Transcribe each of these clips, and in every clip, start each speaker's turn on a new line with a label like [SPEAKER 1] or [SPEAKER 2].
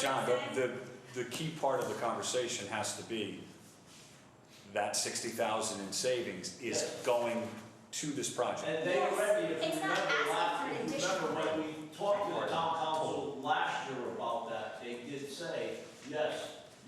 [SPEAKER 1] the, the key part of the conversation has to be that sixty thousand in savings is going to this project.
[SPEAKER 2] And they
[SPEAKER 3] Yes.
[SPEAKER 2] already, if you
[SPEAKER 3] It's not
[SPEAKER 2] remember
[SPEAKER 3] asking
[SPEAKER 2] last,
[SPEAKER 3] for an
[SPEAKER 2] if you remember when we talked to the town council last year about that, they did say, yes,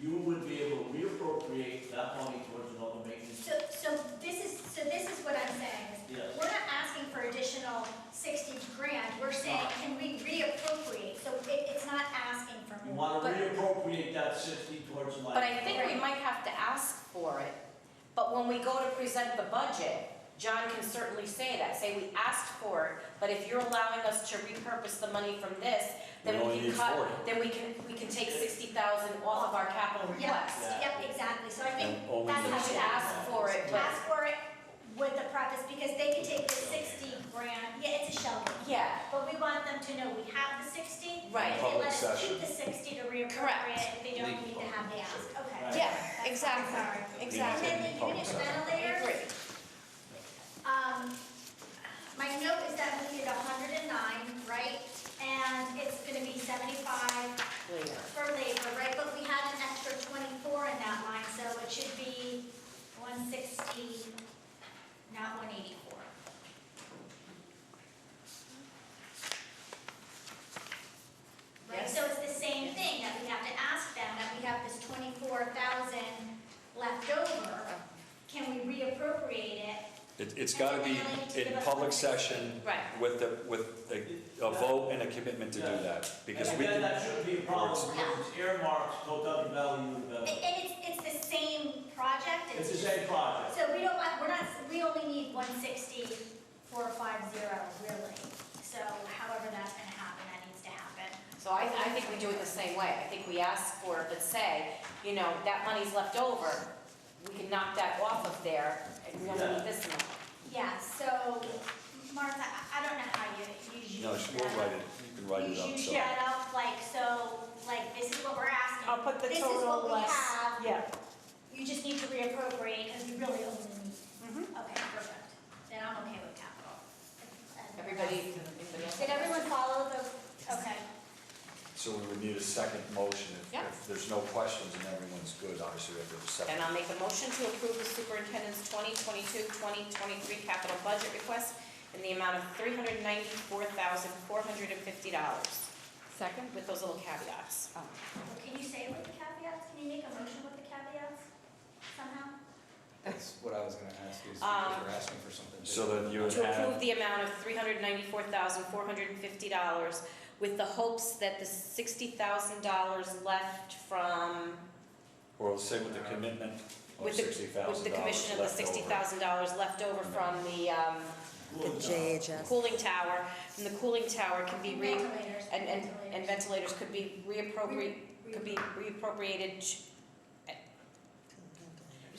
[SPEAKER 2] you would be able to reappropriate that money towards another maintenance.
[SPEAKER 3] So, so this is, so this is what I'm saying, is
[SPEAKER 2] Yes.
[SPEAKER 3] we're not asking for additional sixty grand, we're saying, can we reappropriate? So it, it's not asking for
[SPEAKER 2] You
[SPEAKER 3] more,
[SPEAKER 2] want to
[SPEAKER 3] but,
[SPEAKER 2] reappropriate that sixty towards
[SPEAKER 4] But
[SPEAKER 2] like,
[SPEAKER 4] I think we might have to ask for it. But when we go to present the budget, John can certainly say that, say we asked for it, but if you're allowing us to repurpose the money from this,
[SPEAKER 1] We
[SPEAKER 4] then
[SPEAKER 1] only
[SPEAKER 4] we can
[SPEAKER 1] need 40.
[SPEAKER 4] cut, then we can, we can take sixty thousand off of our capital
[SPEAKER 3] yes,
[SPEAKER 4] request.
[SPEAKER 2] Yeah.
[SPEAKER 3] yep, exactly, so I
[SPEAKER 1] And
[SPEAKER 3] think
[SPEAKER 1] only
[SPEAKER 3] that's
[SPEAKER 1] the-
[SPEAKER 3] how
[SPEAKER 4] We should
[SPEAKER 3] we ask.
[SPEAKER 4] ask for it, but,
[SPEAKER 3] Ask for it with the preface, because they can take the sixty grand, yeah, it's a shell game.
[SPEAKER 4] yeah,
[SPEAKER 3] But we want them to know we have the sixty.
[SPEAKER 4] Right.
[SPEAKER 3] They let
[SPEAKER 1] Public
[SPEAKER 3] us
[SPEAKER 1] session.
[SPEAKER 3] keep the sixty to
[SPEAKER 4] Correct.
[SPEAKER 3] reappropriate, if they don't need to have the ask,
[SPEAKER 2] Right.
[SPEAKER 3] okay.
[SPEAKER 4] yeah,
[SPEAKER 3] That's fine,
[SPEAKER 4] exactly,
[SPEAKER 3] sorry.
[SPEAKER 4] exactly.
[SPEAKER 3] And then the
[SPEAKER 1] Public
[SPEAKER 3] unit
[SPEAKER 1] session.
[SPEAKER 4] I
[SPEAKER 3] ventilators.
[SPEAKER 4] agree.
[SPEAKER 3] Um, my note is that we need hundred and nine, right? And it's gonna be seventy-five
[SPEAKER 4] Leah.
[SPEAKER 3] for labor, right? But we had an extra twenty-four in that line, so it should be one sixty, not one eighty-four. Right,
[SPEAKER 4] Yes.
[SPEAKER 3] so it's the same thing, that we have to ask them, that we have this twenty-four thousand left over. Can we reappropriate it
[SPEAKER 1] It, it's gotta be in public session
[SPEAKER 4] Right.
[SPEAKER 1] with the, with a, a vote and a commitment to do that. Because we
[SPEAKER 2] again, that
[SPEAKER 1] can,
[SPEAKER 2] shouldn't be a problem,
[SPEAKER 3] Yeah.
[SPEAKER 2] because it's earmarked, go down the value of
[SPEAKER 3] And
[SPEAKER 2] the,
[SPEAKER 3] and it's, it's the same project,
[SPEAKER 2] it's the
[SPEAKER 3] it's,
[SPEAKER 2] same project.
[SPEAKER 3] so we don't want, we're not, we only need one sixty, four five zero, really. So however that's gonna happen, that needs to happen.
[SPEAKER 4] So I, I think we do it the same way. I think we ask for it, but say, you know, that money's left over, we can knock that off of there, and we only need this amount.
[SPEAKER 3] Yeah, so Martha, I I don't know how you, you use
[SPEAKER 1] no,
[SPEAKER 3] that.
[SPEAKER 1] we'll write it, you can write it
[SPEAKER 3] You
[SPEAKER 1] up,
[SPEAKER 3] use
[SPEAKER 1] so.
[SPEAKER 3] that up, like, so, like, this is what we're asking.
[SPEAKER 5] I'll put the total
[SPEAKER 3] This
[SPEAKER 5] less.
[SPEAKER 3] is what we have,
[SPEAKER 5] Yeah,
[SPEAKER 3] you just need to reappropriate, because you really only need.
[SPEAKER 4] Mm-hmm.
[SPEAKER 5] Mhm.
[SPEAKER 3] Okay, perfect, then I'm okay with capital. And-
[SPEAKER 4] Everybody, anybody else?
[SPEAKER 3] Did everyone follow the, okay,
[SPEAKER 1] So we would need a second motion. If-
[SPEAKER 4] Yeah.
[SPEAKER 1] If there's no questions and everyone's good, obviously we have to have a
[SPEAKER 4] Then
[SPEAKER 1] second.
[SPEAKER 4] I'll make a motion to approve the superintendent's 2022-2023 capital budget request in the amount of $394,450. Second. With those little caveats.
[SPEAKER 3] Oh. well, can you say it with the caveats, can you make a motion with the caveats somehow?
[SPEAKER 6] That's what I was gonna ask you, is
[SPEAKER 4] Um,
[SPEAKER 6] because you're asking for something
[SPEAKER 1] So
[SPEAKER 6] different.
[SPEAKER 1] then you would
[SPEAKER 4] To approve
[SPEAKER 1] add,
[SPEAKER 4] the amount of $394,450 with the hopes that the $60,000 left from,
[SPEAKER 1] or we'll say with the commitment of
[SPEAKER 4] with the,
[SPEAKER 1] sixty
[SPEAKER 4] with the
[SPEAKER 1] thousand dollars
[SPEAKER 4] commission of
[SPEAKER 1] left
[SPEAKER 4] the
[SPEAKER 1] over.
[SPEAKER 4] $60,000 left over from the um,
[SPEAKER 2] Cool.
[SPEAKER 4] cooling tower, from the cooling tower can be re-
[SPEAKER 3] Ventilators.
[SPEAKER 4] And, and, and
[SPEAKER 3] ventilators.
[SPEAKER 4] ventilators could be reappropriate,
[SPEAKER 3] Re-
[SPEAKER 4] could be reappropriated, ch- eh,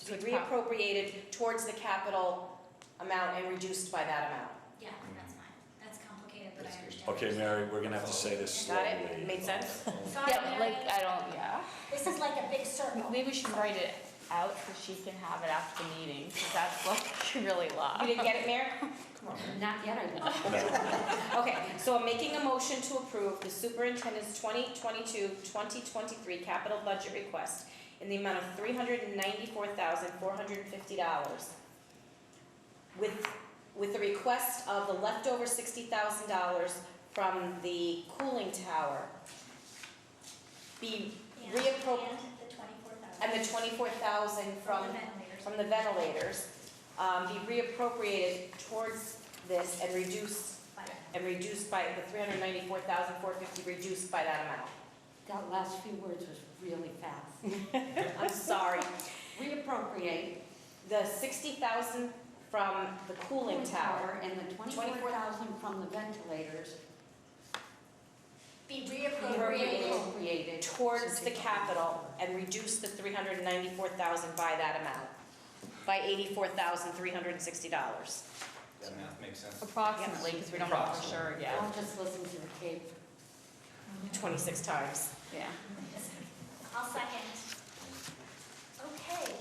[SPEAKER 4] could be reappropriated towards the capital amount and reduced by that amount.
[SPEAKER 3] Yeah, that's fine, that's complicated, but I
[SPEAKER 6] That's good.
[SPEAKER 3] understand.
[SPEAKER 1] Okay, Mary, we're gonna have to say this
[SPEAKER 4] Got
[SPEAKER 1] slowly.
[SPEAKER 4] it? Made sense?
[SPEAKER 3] Sorry, Mary,
[SPEAKER 7] don't, yeah.
[SPEAKER 3] this is like a big circle.
[SPEAKER 7] Maybe we should write it out so she can have it after the meeting, because that's like really long.
[SPEAKER 4] You didn't get it, Mayor? Not yet, I didn't. Okay, so I'm making a motion to approve the superintendent's 2022-2023 capital budget request in the amount of $394,450 with, with the request of the leftover $60,000 from the cooling tower be
[SPEAKER 3] And-
[SPEAKER 4] reappro,
[SPEAKER 3] And the twenty-four thousand.
[SPEAKER 4] and the 24,000
[SPEAKER 3] the
[SPEAKER 4] from
[SPEAKER 3] ventilators.
[SPEAKER 4] from the ventilators, um, be reappropriated towards this and reduced,
[SPEAKER 3] But-
[SPEAKER 4] and reduced by, the three hundred ninety-four thousand four fifty reduced by that amount.
[SPEAKER 8] That last few words was really fast.
[SPEAKER 4] I'm sorry.
[SPEAKER 8] Reappropriate
[SPEAKER 4] The sixty thousand from the cooling tower,
[SPEAKER 8] and the twenty-four thousand from the ventilators
[SPEAKER 3] Be
[SPEAKER 4] Reappropriated.
[SPEAKER 3] reappropriated.
[SPEAKER 8] reappropriated.
[SPEAKER 4] towards the capital and reduce the three hundred ninety-four thousand by that amount, by eighty-four thousand three hundred and sixty dollars.
[SPEAKER 6] That math makes sense.
[SPEAKER 7] Approximately, because we don't know for
[SPEAKER 6] Approximately.
[SPEAKER 7] sure
[SPEAKER 8] I'll
[SPEAKER 7] yet.
[SPEAKER 8] just listen to the tape.
[SPEAKER 4] Twenty-six times.
[SPEAKER 7] Yeah.
[SPEAKER 3] I'll second.